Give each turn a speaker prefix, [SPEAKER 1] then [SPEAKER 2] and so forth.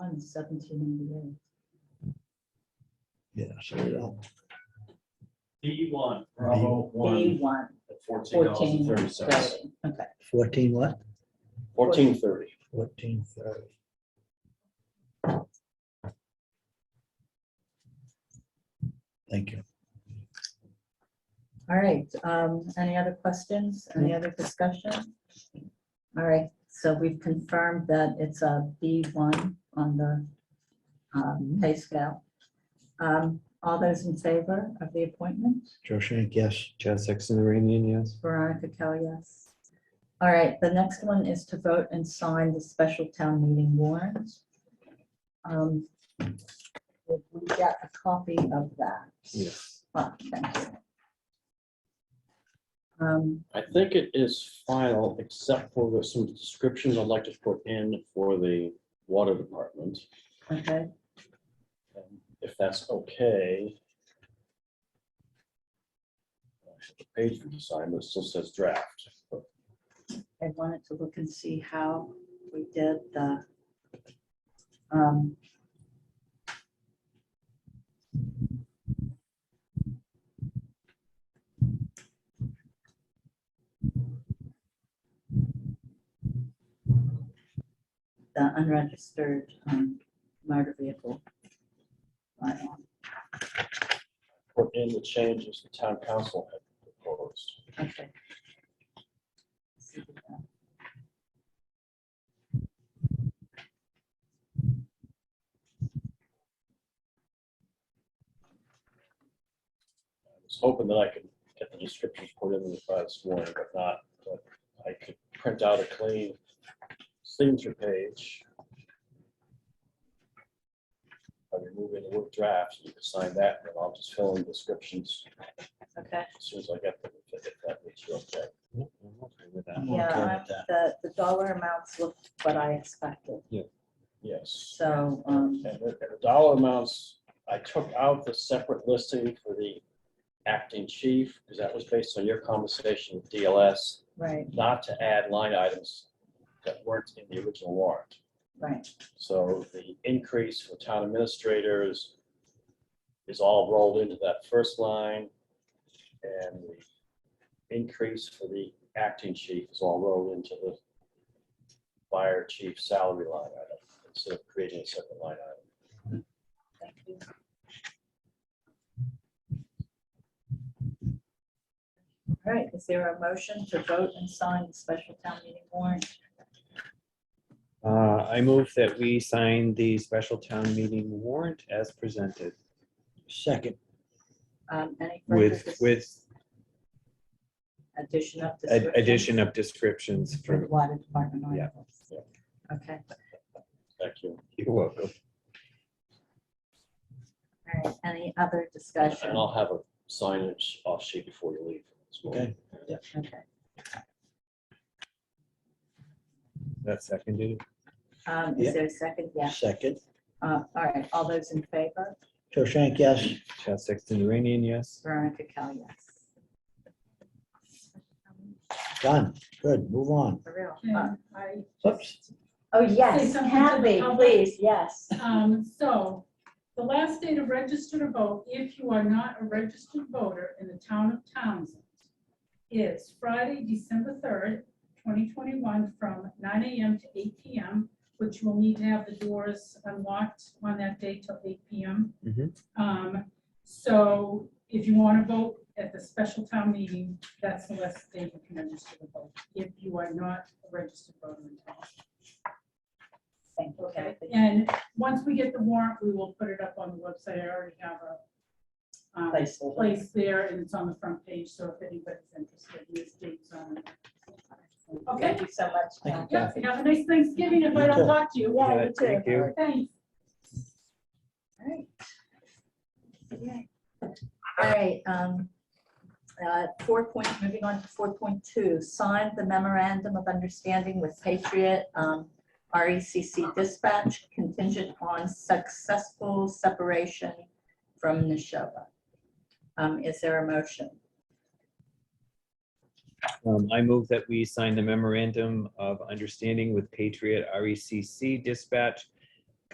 [SPEAKER 1] since seventeen eighty-eight.
[SPEAKER 2] Yeah, so yeah,
[SPEAKER 3] D one, Bravo
[SPEAKER 1] Day
[SPEAKER 3] one,
[SPEAKER 1] one,
[SPEAKER 3] at fourteen dollars and
[SPEAKER 1] fourteen
[SPEAKER 3] thirty cents.
[SPEAKER 1] thirty, okay.
[SPEAKER 2] fourteen what?
[SPEAKER 4] Fourteen thirty.
[SPEAKER 2] Fourteen thirty. Thank you.
[SPEAKER 1] All right, um, any other questions, any other discussion? All right, so we've confirmed that it's a B one on the um, pay scale. Um, All those in favor of the appointment?
[SPEAKER 2] Joe Shank, yes.
[SPEAKER 4] Chad Sexton Iranian, yes.
[SPEAKER 1] Veronica Kell, yes. All right, the next one is to vote and sign the special town meeting warrant. Um, If we get a copy of that.
[SPEAKER 4] Yes.
[SPEAKER 1] Oh, thank you. Um,
[SPEAKER 4] I think it is final, except for there's some descriptions I'd like to put in for the water department,
[SPEAKER 1] Okay,
[SPEAKER 4] um, if that's okay. The Page for design, but it still says draft. but
[SPEAKER 1] I wanted to look and see how we did the um, the unregistered um, motor vehicle. bylaw.
[SPEAKER 4] Put in the changes the town council had proposed.
[SPEAKER 1] Okay.
[SPEAKER 4] I was hoping that I could get the descriptions put in by this morning, but not, but I could print out a clean signature page. I remove any work drafts, you can sign that, and then I'll just fill in descriptions
[SPEAKER 1] Okay,
[SPEAKER 4] as soon as I get them, if if that makes you okay.
[SPEAKER 2] I'm okay
[SPEAKER 1] yeah,
[SPEAKER 2] with that.
[SPEAKER 1] the, the dollar amounts looked what I expected.
[SPEAKER 4] Yes.
[SPEAKER 1] So, um,
[SPEAKER 4] And the and the dollar amounts, I took out the separate listing for the acting chief, because that was based on your conversation with DLS.
[SPEAKER 1] right,
[SPEAKER 4] not to add line items that weren't in the original warrant.
[SPEAKER 1] right,
[SPEAKER 4] So the increase for town administrators is all rolled into that first line. And the increase for the acting chief is all rolled into the fire chief salary line item instead of creating a separate line item.
[SPEAKER 1] thank you. All right, is there a motion to vote and sign the special town meeting warrant?
[SPEAKER 5] Uh, I move that we sign the special town meeting warrant as presented
[SPEAKER 2] Second,
[SPEAKER 1] Um, any further
[SPEAKER 5] with,
[SPEAKER 1] dis-
[SPEAKER 5] with
[SPEAKER 1] Addition of.
[SPEAKER 5] ad-
[SPEAKER 1] description?
[SPEAKER 5] addition of descriptions
[SPEAKER 1] For the
[SPEAKER 5] from,
[SPEAKER 1] Water department.
[SPEAKER 5] Yeah.
[SPEAKER 1] articles. Okay,
[SPEAKER 4] Thank you.
[SPEAKER 5] you're welcome.
[SPEAKER 1] all right, any other
[SPEAKER 4] And
[SPEAKER 1] discussion?
[SPEAKER 4] I'll have a signage off sheet before you leave. this morning.
[SPEAKER 2] okay,
[SPEAKER 1] Okay.
[SPEAKER 5] That seconded.
[SPEAKER 1] Um,
[SPEAKER 2] Yeah.
[SPEAKER 1] is there a second? Yeah,
[SPEAKER 2] second.
[SPEAKER 1] uh, all right, all those in favor?
[SPEAKER 2] Joe Shank, yes.
[SPEAKER 5] Chad Sexton Iranian, yes.
[SPEAKER 1] Veronica Kell, yes.
[SPEAKER 2] Done. Good, move on.
[SPEAKER 1] For real.
[SPEAKER 6] Okay,
[SPEAKER 1] Uh,
[SPEAKER 6] I-
[SPEAKER 2] Oops.
[SPEAKER 1] Oh,
[SPEAKER 6] Say
[SPEAKER 1] yes,
[SPEAKER 6] something to the
[SPEAKER 1] Kathy,
[SPEAKER 6] public.
[SPEAKER 1] please, yes.
[SPEAKER 6] Um, so, the last day to register to vote, if you are not a registered voter in the town of Townsend, is Friday, December third, twenty twenty-one, from nine AM to eight PM, which you will need to have the doors unlocked on that day till eight PM.
[SPEAKER 5] Mhm.
[SPEAKER 6] Um, so if you want to vote at the special town meeting, that's the last day you can register to vote, if you are not a registered voter in town.
[SPEAKER 1] Thank you,
[SPEAKER 6] Okay,
[SPEAKER 1] Kathy.
[SPEAKER 6] and once we get the warrant, we will put it up on the website. I already have a um,
[SPEAKER 1] Placeholder.
[SPEAKER 6] place there and it's on the front page. So if anybody's interested, these dates on it. Okay,
[SPEAKER 1] Thank you so much.
[SPEAKER 2] Thank
[SPEAKER 1] Kathy.
[SPEAKER 6] yep, have a nice Thanksgiving if I
[SPEAKER 2] You
[SPEAKER 6] don't
[SPEAKER 2] too.
[SPEAKER 6] talk to you.
[SPEAKER 5] Yeah,
[SPEAKER 6] Well,
[SPEAKER 5] Thank you.
[SPEAKER 6] Thanks.
[SPEAKER 1] Alright. Okay. All right, um, uh, four point, moving on to four point two, sign the memorandum of understanding with Patriot, um, RECC dispatch contingent on successful separation from Neshoba. Um, is there a motion?
[SPEAKER 5] Um, I move that we sign the memorandum of understanding with Patriot RECC E dispatch